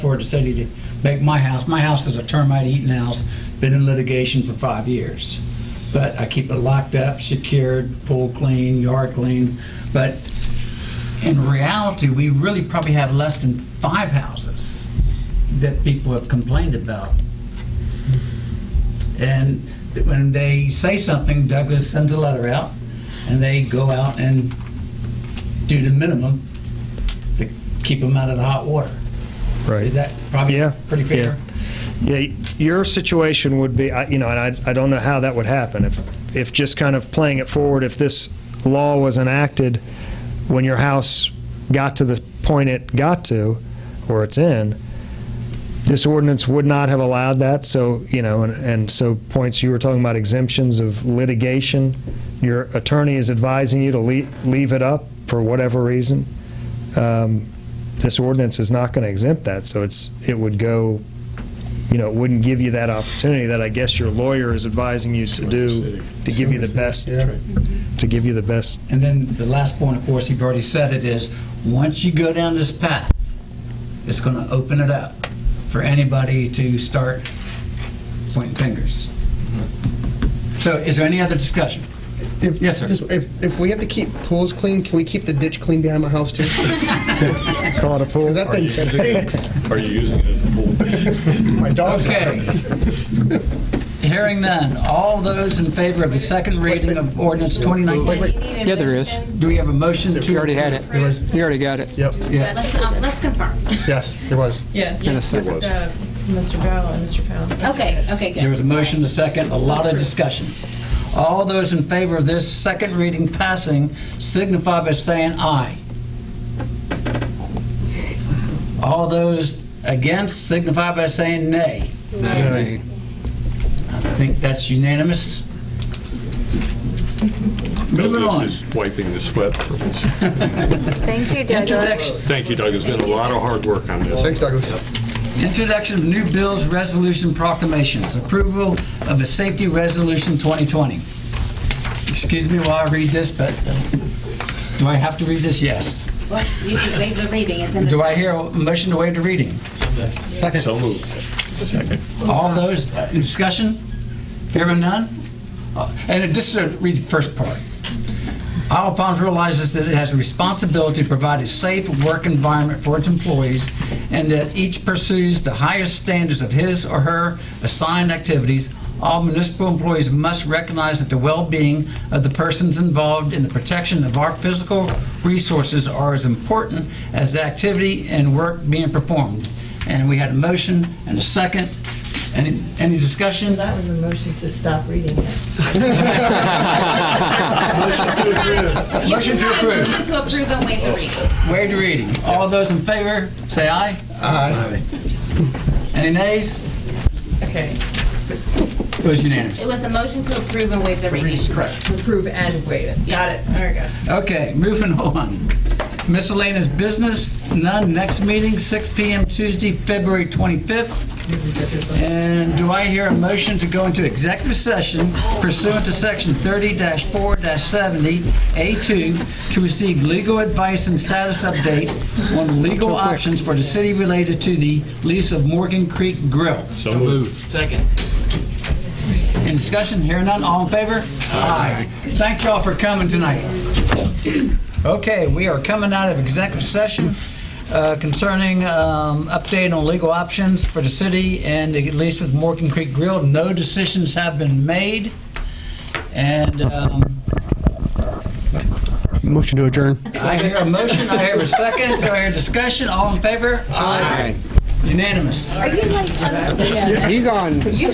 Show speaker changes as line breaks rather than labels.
Georgia City to make my house. My house is a termite eating house, been in litigation for five years. But I keep it locked up, secured, pool clean, yard clean. But in reality, we really probably have less than five houses that people have complained about. And when they say something, Douglas sends a letter out, and they go out and do the minimum to keep them out of the hot water.
Right.
Is that probably
Yeah,
pretty fair?
Yeah, y- your situation would be, I- you know, and I, I don't know how that would happen. If, if just kind of playing it forward, if this law was enacted when your house got to the point it got to, or it's in, this ordinance would not have allowed that. So, you know, and, and so points you were talking about exemptions of litigation. Your attorney is advising you to leave, leave it up for whatever reason. Um, this ordinance is not going to exempt that. So it's, it would go you know, it wouldn't give you that opportunity that I guess your lawyer is advising you to do, to give you the best, to give you the best.
And then the last point, of course, you've already said it, is once you go down this path, it's going to open it up for anybody to start pointing fingers. So is there any other discussion?
If-
Yes, sir.
just- If, if we have to keep pools clean, can we keep the ditch clean behind my house too? Because
Call it a fool.
that thing stinks.
Are you using it as a pool?
My dog's on
Okay.
it.
Hearing none, all those in favor of the second reading of ordinance 2019,
Yeah, there is.
do we have a motion to?
You already had it.
There was,
You already got it.
yep,
Yeah.
Let's, um, let's confirm.
yes, there was.
Yes.
In a second.
It's, uh, Mr. Bell and Mr. Powell.
Okay, okay, good.
There was a motion, a second, a lot of discussion. All those in favor of this second reading passing signify by saying aye. All those against signify by saying nay. I think that's unanimous. Moving on.
This is wiping the sweat from us.
Thank you,
Introduction.
Douglas.
Thank you, Doug. It's been a lot of hard work on this.
Thanks, Douglas.
Introduction of new bills, resolution proclamations, approval of a safety resolution 2020. Excuse me while I read this, but do I have to read this? Yes.
Well, you can waive the reading. It's in the.
Do I hear a motion to waive the reading?
So moved. Second.
All those, uh, in discussion? Hearing none? Uh, And just to read the first part. Isle of Palms realizes that it has a responsibility to provide a safe work environment for its employees and that each pursues the highest standards of his or her assigned activities. All municipal employees must recognize that the well-being of the persons involved in the protection of our physical resources are as important as the activity and work being performed. And we had a motion and a second. Any, any discussion?
Oh, That was a motion to stop reading.
Motion to approve.
Motion to approve and waive the reading.
Waive the reading. All those in favor, say aye.
Aye.
Any nays?
Okay.
It was
It
unanimous.
was a motion to approve and waive the reading.
Correct.
Approve and waive it. Got it. There we go.
Okay, moving on. Miscellaneous business, none. Next meeting, 6 PM Tuesday, February 25th. And do I hear a motion to go into executive session pursuant to Section 30-4-70A2 to receive legal advice and status update on legal options for the city related to the lease of Morgan Creek Grill?
So moved.
Second. In discussion, hearing none, all in favor? Aye. Thank y'all for coming tonight. Okay, we are coming out of executive session uh, concerning um, update on legal options for the city and at least with Morgan Creek Grill. No decisions have been made. And um,
Motion to adjourn.
I hear a motion, I hear a second, do I hear discussion, all in favor? Aye. Unanimous.
Are you like,
He's on.